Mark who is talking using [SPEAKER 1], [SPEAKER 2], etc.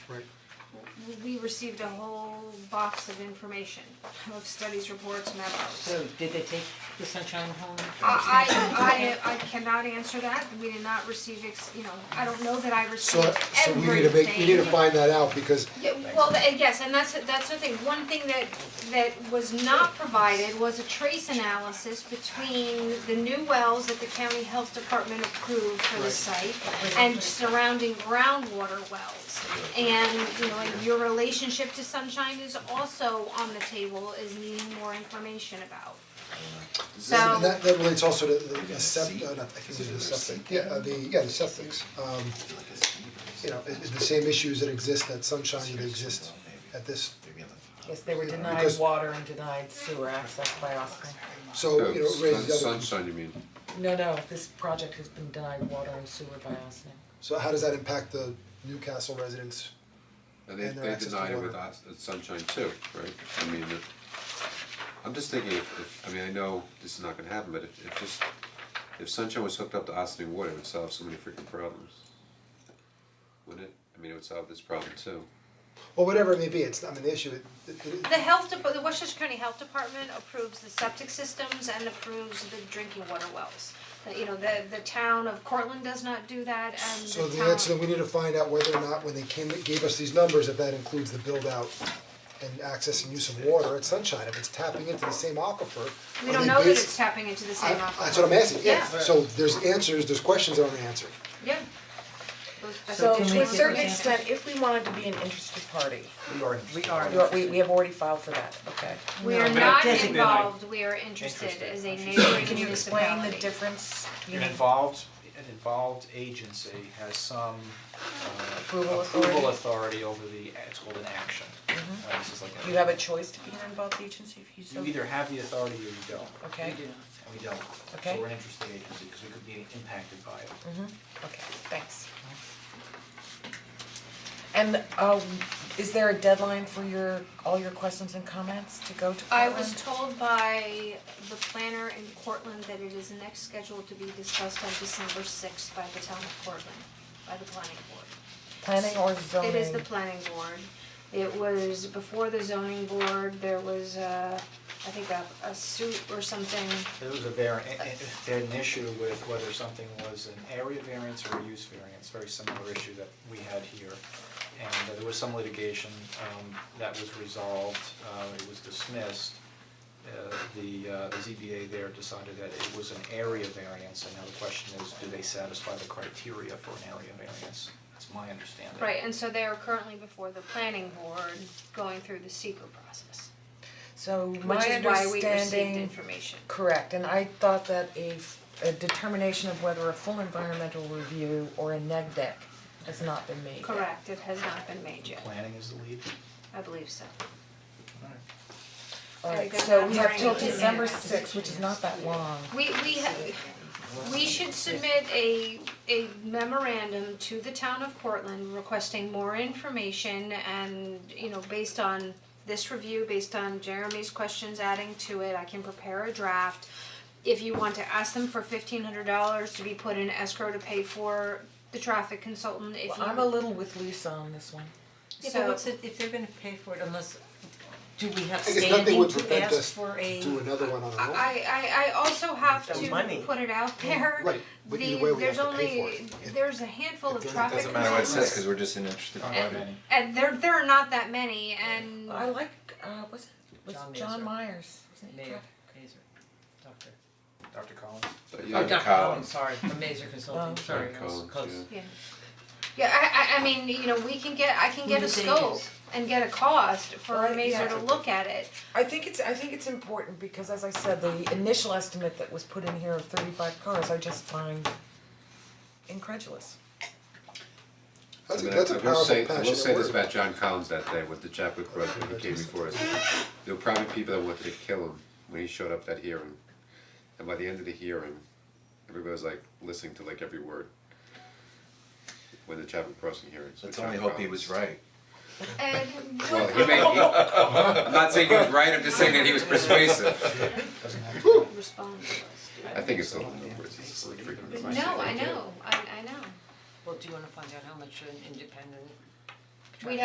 [SPEAKER 1] right?
[SPEAKER 2] we received a whole box of information, of studies, reports, memos.
[SPEAKER 3] So did they take the sunshine home?
[SPEAKER 2] I I I I cannot answer that, we did not receive, ex- you know, I don't know that I
[SPEAKER 1] So,
[SPEAKER 2] received
[SPEAKER 1] so we
[SPEAKER 2] everything.
[SPEAKER 1] need to make, we need to find that out because
[SPEAKER 2] Yeah, well, th- yes, and that's, that's the thing, one thing that, that was not provided was a trace analysis between the new wells that the county health department approved for the site and surrounding groundwater wells. And, you know, and your relationship to sunshine is also on the table, is needing more information about. So.
[SPEAKER 1] And that that relates also to the the septic, uh, I think it is the septic, yeah, uh, the, yeah, the septics, um. You know, it- it's the same issues that exist at Sunshine that exist at this,
[SPEAKER 3] Yes, they were denied
[SPEAKER 1] Because-
[SPEAKER 3] water and denied sewer access by Austin.
[SPEAKER 1] so, Oh, you know, it raises the other.
[SPEAKER 4] Sun- Sunshine, you mean,
[SPEAKER 3] No, no, this project has been denied water and sewer by Austin.
[SPEAKER 1] So how does that impact the Newcastle residents?
[SPEAKER 4] and they
[SPEAKER 1] And their
[SPEAKER 4] they
[SPEAKER 1] access to
[SPEAKER 4] denied it with
[SPEAKER 1] water.
[SPEAKER 4] us, it's Sunshine too, right? I mean, it- I'm just thinking if if, I mean, I know this is not gonna happen, but if if just, if Sunshine was hooked up to Ossining Water, it would solve so many freaking problems. Wouldn't it? I mean, it would solve this problem too.
[SPEAKER 1] Or whatever it may be, it's, I mean, the issue, it, it- it-
[SPEAKER 2] The health dep- the Westchester County Health Department approves the septic systems and approves the drinking water wells. The- You know, the the town of Cortland does not do that and
[SPEAKER 1] so
[SPEAKER 2] the
[SPEAKER 1] the answer,
[SPEAKER 2] town,
[SPEAKER 1] we need to find out whether or not when they came, gave us these numbers, if that includes the build out and access and use of water at Sunshine, if it's tapping into the same aquifer.
[SPEAKER 2] we
[SPEAKER 1] are
[SPEAKER 2] don't
[SPEAKER 1] they
[SPEAKER 2] know that
[SPEAKER 1] based-
[SPEAKER 2] it's tapping into the
[SPEAKER 1] I-
[SPEAKER 2] same aquifer.
[SPEAKER 1] That's what I'm asking, yeah,
[SPEAKER 2] Yeah.
[SPEAKER 1] so there's answers, there's questions that aren't answered.
[SPEAKER 2] Yeah. Those- that's
[SPEAKER 3] So
[SPEAKER 2] what
[SPEAKER 3] can
[SPEAKER 2] we
[SPEAKER 3] we
[SPEAKER 5] To a
[SPEAKER 2] want.
[SPEAKER 3] get
[SPEAKER 5] certain extent, if we wanted to be an interested party,
[SPEAKER 1] We are.
[SPEAKER 3] We are,
[SPEAKER 5] we are- we we have already filed for that, okay.
[SPEAKER 2] We are not
[SPEAKER 3] Designate.
[SPEAKER 2] involved, we are interested as a neighboring
[SPEAKER 5] Can you explain the
[SPEAKER 2] municipality.
[SPEAKER 5] difference? You
[SPEAKER 6] An
[SPEAKER 5] mean-
[SPEAKER 6] involved, an involved agency has some uh,
[SPEAKER 5] Approval
[SPEAKER 6] approval authority over the, it's called an action. Uh, This is like a-
[SPEAKER 5] Mm-hmm. You have a choice to be an involved agency if you so.
[SPEAKER 6] You either have the authority or you don't,
[SPEAKER 5] Okay,
[SPEAKER 6] and we don't.
[SPEAKER 5] Okay.
[SPEAKER 6] So we're an interested agency, because we could be impacted by it.
[SPEAKER 5] okay, thanks. And um is there a deadline for your, all your questions and comments to go to
[SPEAKER 2] I
[SPEAKER 5] Portland?
[SPEAKER 2] was told by the planner in Cortland that it is next scheduled to be discussed on December sixth by the town of Cortland, by the planning board.
[SPEAKER 5] Planning or zoning?
[SPEAKER 2] It is the planning board. It was before the zoning board, there was uh I think a, a suit or something.
[SPEAKER 6] There was a var, a- a- they had an issue with whether something was an area variance or a use variance, very similar issue that we had here. And uh, there was some litigation um, that was resolved, uh, it was dismissed. Uh, The, uh, the ZBA there decided that it was an area variance, and now the question is, do they satisfy the criteria for an area variance? That's my understanding.
[SPEAKER 2] Right, and so they are currently before the planning board going through the secret process,
[SPEAKER 5] So my
[SPEAKER 2] which is why we received
[SPEAKER 5] understanding,
[SPEAKER 2] information.
[SPEAKER 5] correct, and I thought that a f- a determination of whether a full environmental review or a neg deck has not been made yet.
[SPEAKER 2] Correct, it has not been made yet,
[SPEAKER 6] Planning is the lead?
[SPEAKER 2] I believe so.
[SPEAKER 5] Alright,
[SPEAKER 2] Very
[SPEAKER 5] so
[SPEAKER 2] good.
[SPEAKER 5] we have till
[SPEAKER 2] Very good.
[SPEAKER 5] December sixth, which is not that long.
[SPEAKER 2] We we ha- we should submit a a memorandum to the town of Portland requesting more information and, you know, based on this review, based on Jeremy's questions adding to it, I can prepare a draft. If you want to ask them for fifteen hundred dollars to be put in escrow to pay for the traffic consultant, if you
[SPEAKER 5] Well, I'm a little with Lisa on this one.
[SPEAKER 7] Yeah,
[SPEAKER 2] So-
[SPEAKER 7] but what's it, if they're gonna pay for it unless, do we have
[SPEAKER 1] I guess nothing
[SPEAKER 7] standing
[SPEAKER 1] would
[SPEAKER 7] to
[SPEAKER 1] prevent us
[SPEAKER 7] ask for a?
[SPEAKER 1] do another one on our own.
[SPEAKER 2] I I I also have
[SPEAKER 7] The
[SPEAKER 2] to
[SPEAKER 7] money.
[SPEAKER 2] put it out there.
[SPEAKER 1] Right, but either way,
[SPEAKER 2] The
[SPEAKER 1] we have
[SPEAKER 2] there's
[SPEAKER 1] to pay for
[SPEAKER 2] only,
[SPEAKER 1] it.
[SPEAKER 2] there's a handful of
[SPEAKER 1] It
[SPEAKER 2] traffic
[SPEAKER 1] doesn't
[SPEAKER 4] matter what it says,
[SPEAKER 2] consultants.
[SPEAKER 4] cause we're just an interested
[SPEAKER 6] Not
[SPEAKER 4] party.
[SPEAKER 6] many.
[SPEAKER 2] And there there are not that many and
[SPEAKER 5] I like, uh, was it, was
[SPEAKER 7] John
[SPEAKER 5] it John
[SPEAKER 7] Mazur.
[SPEAKER 5] Myers? Wasn't he
[SPEAKER 7] Mayor,
[SPEAKER 5] traffic?
[SPEAKER 7] Mazer, doctor.
[SPEAKER 6] Dr. Collins?
[SPEAKER 4] But
[SPEAKER 7] Oh,
[SPEAKER 4] yeah,
[SPEAKER 7] Dr. Collins,
[SPEAKER 4] Collins,
[SPEAKER 7] sorry, from Mazer Consulting,
[SPEAKER 5] Oh.
[SPEAKER 7] sorry, I was
[SPEAKER 4] Collins,
[SPEAKER 7] close.
[SPEAKER 4] yeah.
[SPEAKER 2] yeah. Yeah, I I I mean, you know, we can get, I can get a
[SPEAKER 7] Who's the
[SPEAKER 2] scope
[SPEAKER 7] biggest?
[SPEAKER 2] and get a cost for a
[SPEAKER 5] Right,
[SPEAKER 2] Mazer
[SPEAKER 5] yeah.
[SPEAKER 2] to look at it.
[SPEAKER 5] I think it's, I think it's important because as I said, the initial estimate that was put in here of thirty-five cars, I just find incredulous.
[SPEAKER 1] That's a,
[SPEAKER 4] I mean,
[SPEAKER 1] that's a
[SPEAKER 4] I will
[SPEAKER 1] powerful
[SPEAKER 4] say,
[SPEAKER 1] passionate word.
[SPEAKER 4] I will say this about John Collins that day with the Chadwick Boseman who came before us. There were probably people that wanted to kill him when he showed up that hearing. And by the end of the hearing, everybody was like listening to like every word. When the Chadwick Boseman hearings. with
[SPEAKER 8] Let's only
[SPEAKER 4] John
[SPEAKER 8] hope he
[SPEAKER 4] Collins.
[SPEAKER 8] was right.
[SPEAKER 2] And
[SPEAKER 4] Well,
[SPEAKER 2] what
[SPEAKER 4] he may, he, I'm not saying he was right, I'm just saying that he was persuasive.
[SPEAKER 6] Doesn't have
[SPEAKER 2] the response was.
[SPEAKER 4] I think it's a little numbers, it's a freaking.
[SPEAKER 2] No, I know, I I know.
[SPEAKER 7] Well, do you wanna find out how much an independent